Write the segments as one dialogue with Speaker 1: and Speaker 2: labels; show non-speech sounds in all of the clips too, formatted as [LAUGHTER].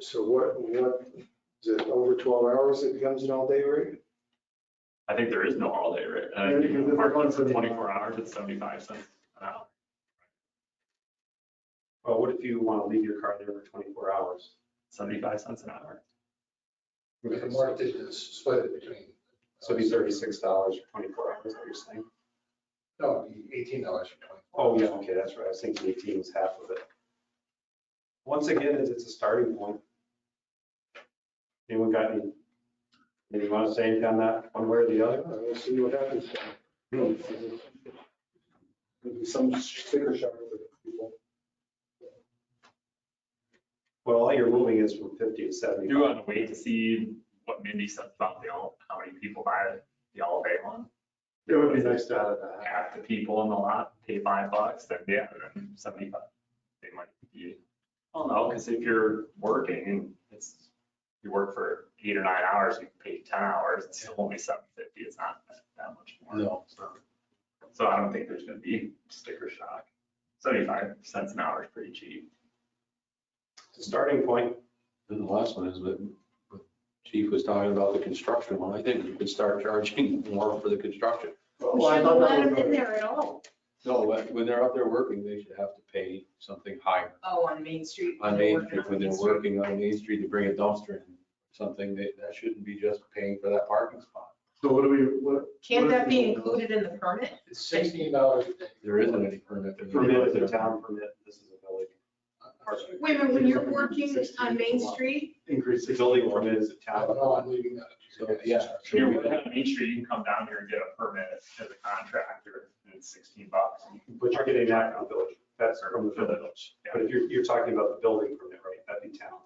Speaker 1: So what, what, is it over 12 hours it becomes an all-day rate?
Speaker 2: I think there is no all day rate. I
Speaker 1: Yeah,
Speaker 2: think
Speaker 1: because
Speaker 2: you
Speaker 1: they're
Speaker 2: park
Speaker 1: going
Speaker 2: it
Speaker 1: for
Speaker 2: for
Speaker 1: the-
Speaker 2: twenty-four hours, it's seventy-five cents an hour.
Speaker 3: Well, what if you want to leave your car there for 24 hours?
Speaker 2: Seventy-five cents an hour.
Speaker 4: The market is split it between.
Speaker 3: So it'd be $36 for 24 hours, is what you're saying?
Speaker 4: No, it'd be eighteen dollars for twenty.
Speaker 3: Oh, yeah, okay, that's right. I was thinking 18 was half of it. Once again, it's it's a starting point. Anyone got any, anything want to say anything on that, one way or the other?
Speaker 1: Uh, We'll see what happens.
Speaker 3: Hmm.
Speaker 1: Maybe some sticker shock for people.
Speaker 3: Well, all you're moving is from 50 to 70.
Speaker 2: Do you want to wait to see what Mindy says about the all, how many people buy the all day one?
Speaker 3: It would be nice to have that.
Speaker 2: Half the people in the lot pay five bucks, then the other seventy-five, they might be. I don't know, because if you're working and it's, you work for eight or nine hours, you pay ten hours, it's still only seven fifty, it's not that much more.
Speaker 4: No.
Speaker 2: So I don't think there's gonna be sticker shock. Seventy-five cents an hour is pretty cheap.
Speaker 3: It's a starting point.
Speaker 5: And the last one is that what Chief was talking about the construction one. I think you could start [LAUGHS] charging more for the construction.
Speaker 3: Well, I
Speaker 6: Shouldn't
Speaker 3: thought
Speaker 6: let
Speaker 3: that
Speaker 6: them in
Speaker 3: was-
Speaker 6: there at all.
Speaker 5: No, when when they're out there working, they should have to pay something higher.
Speaker 6: Oh, on Main Street.
Speaker 5: On
Speaker 6: they're
Speaker 5: Main
Speaker 6: working
Speaker 5: Street,
Speaker 6: on
Speaker 5: when they're
Speaker 6: Main Street.
Speaker 5: working on Main Street to bring a dumpster in, something that, that shouldn't be just paying for that parking spot.
Speaker 1: So what do we, what?
Speaker 6: Can't that be included in the permit?
Speaker 4: It's sixteen dollars a day.
Speaker 5: There isn't any permit.
Speaker 3: The
Speaker 5: there.
Speaker 3: Permit is a town permit, this is a village.
Speaker 4: Uh,
Speaker 6: Wait a minute, when you're working on Main Street,
Speaker 3: Increase the building permit is a
Speaker 4: I
Speaker 3: town.
Speaker 4: don't know, I'm leaving that.
Speaker 5: So,
Speaker 4: up to you guys.
Speaker 5: yeah.
Speaker 2: Here, we have Main Street, you can come down here and get a permit as a contractor, and it's sixteen bucks.
Speaker 3: But you're getting that from the village, that's from the village.
Speaker 2: Yeah.
Speaker 3: But if you're, you're talking about the building permit, right, that'd be town.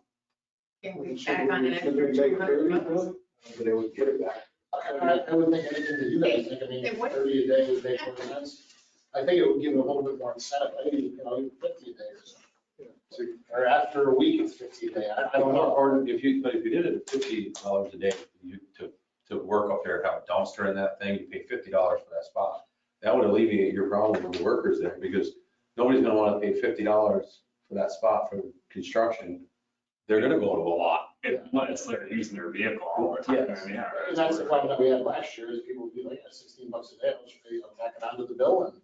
Speaker 6: can we
Speaker 1: Should
Speaker 6: check on an
Speaker 1: we- should we
Speaker 6: extra
Speaker 1: make
Speaker 6: two hundred
Speaker 1: thirty,
Speaker 6: bucks?
Speaker 1: huh?
Speaker 3: But they would get it back.
Speaker 4: I, I would think anything that you guys think, I
Speaker 6: Then
Speaker 4: mean,
Speaker 6: what-
Speaker 4: thirty a day would make more sense. I think it would give them a little bit more incentive, maybe, you know, even fifty a day or something. Or after a week, it's fifty a day, I, I don't know.
Speaker 5: Or if you, but if you did it at fifty dollars a day, you, to, to work up there, have a dumpster in that thing, you pay fifty dollars for that spot. That would alleviate your problem with the workers there, because nobody's gonna wanna pay fifty dollars for that spot for construction. They're gonna go to a lot.
Speaker 2: If, unless they're using their vehicle all the time,
Speaker 5: Yes.
Speaker 2: yeah.
Speaker 4: And that's the problem that we had last year, is people would be like, "Yeah, sixteen bucks a day, I'll just pay, I'll tack it onto the bill and,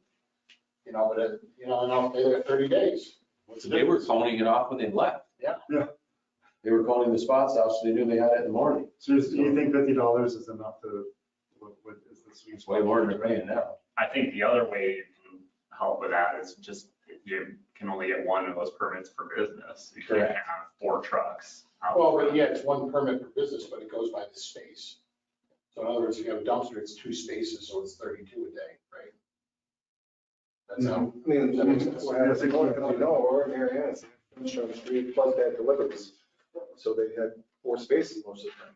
Speaker 4: you know, but, it- you know, and I'll pay there thirty days. What's the
Speaker 5: They were
Speaker 4: difference?
Speaker 5: coning it off when they left.
Speaker 4: Yeah.
Speaker 1: Yeah.
Speaker 5: They were coning the spots out, so they knew they had it in the morning.
Speaker 1: So is- do you think fifty dollars is enough to, what, what is the sweet
Speaker 5: It's way
Speaker 1: spot?
Speaker 5: more than they're paying now.
Speaker 2: I think the other way you can help with that is just, you can only get one of those permits per business. You can't
Speaker 5: Correct.
Speaker 2: have four trucks. out
Speaker 4: Well,
Speaker 2: front.
Speaker 4: but yeah, it's one permit per business, but it goes by the space. So in other words, if you have a dumpster, it's two spaces, so it's thirty-two a day, right? That's
Speaker 1: I
Speaker 4: how,
Speaker 1: mean, what happens, oh, you know, or in Marianna, it's finished on the street, plus they had deliveries. So they had four spaces most of the time.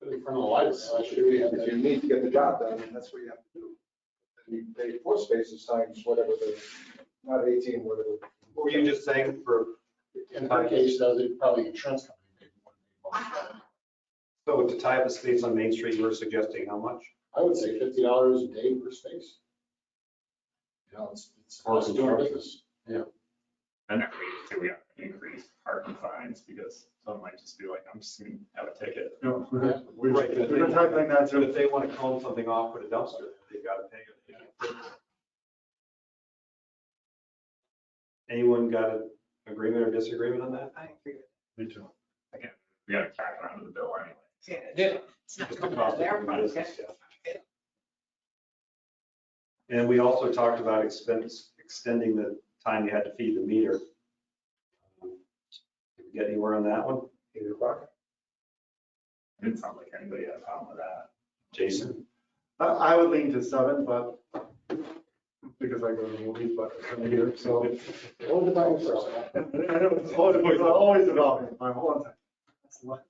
Speaker 4: but in front of the lights, so I should really have
Speaker 1: If you
Speaker 4: that.
Speaker 1: need to get the job done, then that's what you have to do. And you pay four spaces times whatever the, not eighteen, whatever.
Speaker 3: Were you just saying for,
Speaker 4: In her case, though, they probably insurance company. may want to be involved.
Speaker 3: so to tie up the space on Main Street, you were suggesting how much?
Speaker 4: I would say fifty dollars a day per space. You know, it's, it's,
Speaker 5: Or
Speaker 4: it's doing
Speaker 5: construction.
Speaker 4: business.
Speaker 2: And that we, so we have to increase parking fines because someone might just be like, I'm just gonna have a ticket.
Speaker 1: No,
Speaker 4: Yeah.
Speaker 1: we've
Speaker 3: Right,
Speaker 1: we've
Speaker 3: but
Speaker 1: been tackling that
Speaker 3: So if
Speaker 1: too.
Speaker 3: they want to cone something off, put a dumpster, they've got to pay it. Anyone got an agreement or disagreement on that?
Speaker 6: I agree with
Speaker 1: Me too.
Speaker 2: Again, we gotta tack it onto the bill anyway.
Speaker 6: that.
Speaker 5: Yeah.
Speaker 6: It's not
Speaker 3: Just
Speaker 6: coming
Speaker 3: across
Speaker 6: out
Speaker 3: the
Speaker 6: there,
Speaker 3: different
Speaker 6: but okay.
Speaker 3: business, yeah. And we also talked about expense, extending the time you had to feed the meter. Did we get anywhere on that one?
Speaker 1: Eight o'clock.
Speaker 2: Didn't sound like anybody had a problem with that.
Speaker 3: Jason?
Speaker 1: I, I would lean to seven, but because I go to the movies, but I'm here, so.
Speaker 4: Hold the Bible for us.
Speaker 1: I know, it's always, it's always about me, my whole time.
Speaker 2: Like,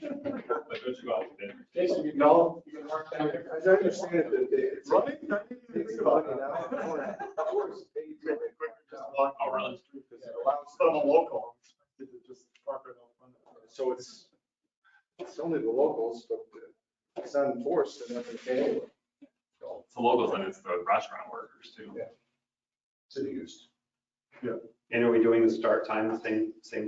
Speaker 2: don't you go out to dinner?
Speaker 4: Jason, you can,
Speaker 1: No.
Speaker 4: you can work down there.
Speaker 1: I understand that they- it's.
Speaker 4: Right?
Speaker 1: I didn't even think about it now. Of course, they do it quicker, just walk
Speaker 2: Oh,
Speaker 1: around
Speaker 2: really?
Speaker 1: the street, 'cause it allows- I'm a local. They could just park right out front of it. So it's, it's only the locals, but it's not enforced and nothing can anyway.
Speaker 2: It's the locals and it's the restaurant workers too.
Speaker 4: City used.
Speaker 3: And are we doing the start time the same, same